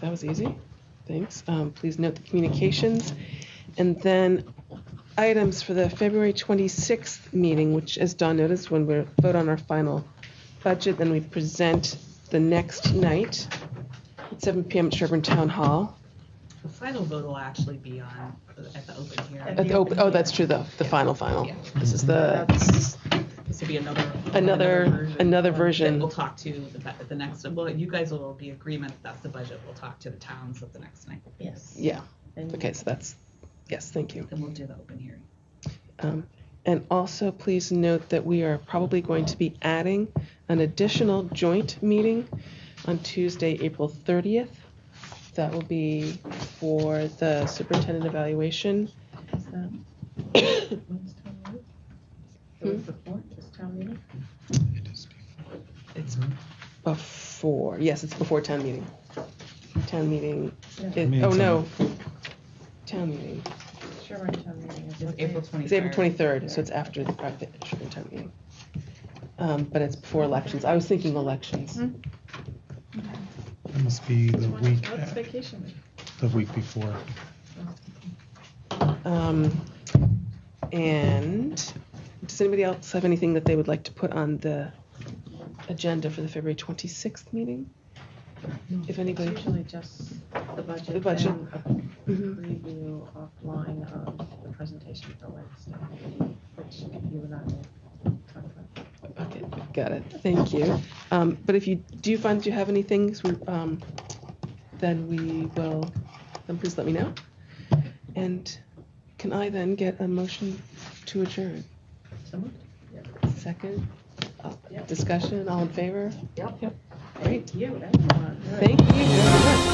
That was easy. Thanks. Um, Please note the communications. And then items for the February 26th meeting, which, as Don noticed, when we vote on our final budget, then we present the next night at 7 PM at Sherburne Town Hall. The final vote will actually be on, at the open At the hearing. op- Oh, that's true, the, the final, final. Yeah. This is the, That's- This will be another. Another- another version. That we'll talk to the, bu- at the next, well, you guys will be agreement, that that's the budget, we'll talk to the towns at the next night, Yes. yeah, And- okay, so that's, yes, thank you. then we'll do the open hearing. Um, And also, please note that we are probably going to be adding an additional joint meeting on Tuesday, April 30th. That will be for the superintendent evaluation. Is that- when's Hmm? town meeting? The week before, is town meeting? It's Before, yes, it's before town meeting. Town meeting, No, is- oh no, town meeting. Sherburne town meeting is. it's what day? April 23rd. It's April 23rd, so it's after the private Sugar Town meeting. Um, But it's before elections. I was thinking elections. It must be the What's- week, What's a- vacation week? the week before. Um, And does anybody else have anything that they would like to put on the agenda for the February 26th meeting? If It's anybody, usually just the budget. The budget. and a Mhm. Preview offline of the presentation for Wednesday, which you and I will talk about. okay, got it, thank you. Um, But if you do find that you have any things, we, um, then we will, then please let me know. And can I then get a motion to adjourn? So moved. Second, uh, Yep. discussion, all in favor? Yep. Great, You, everyone. thank you. very much.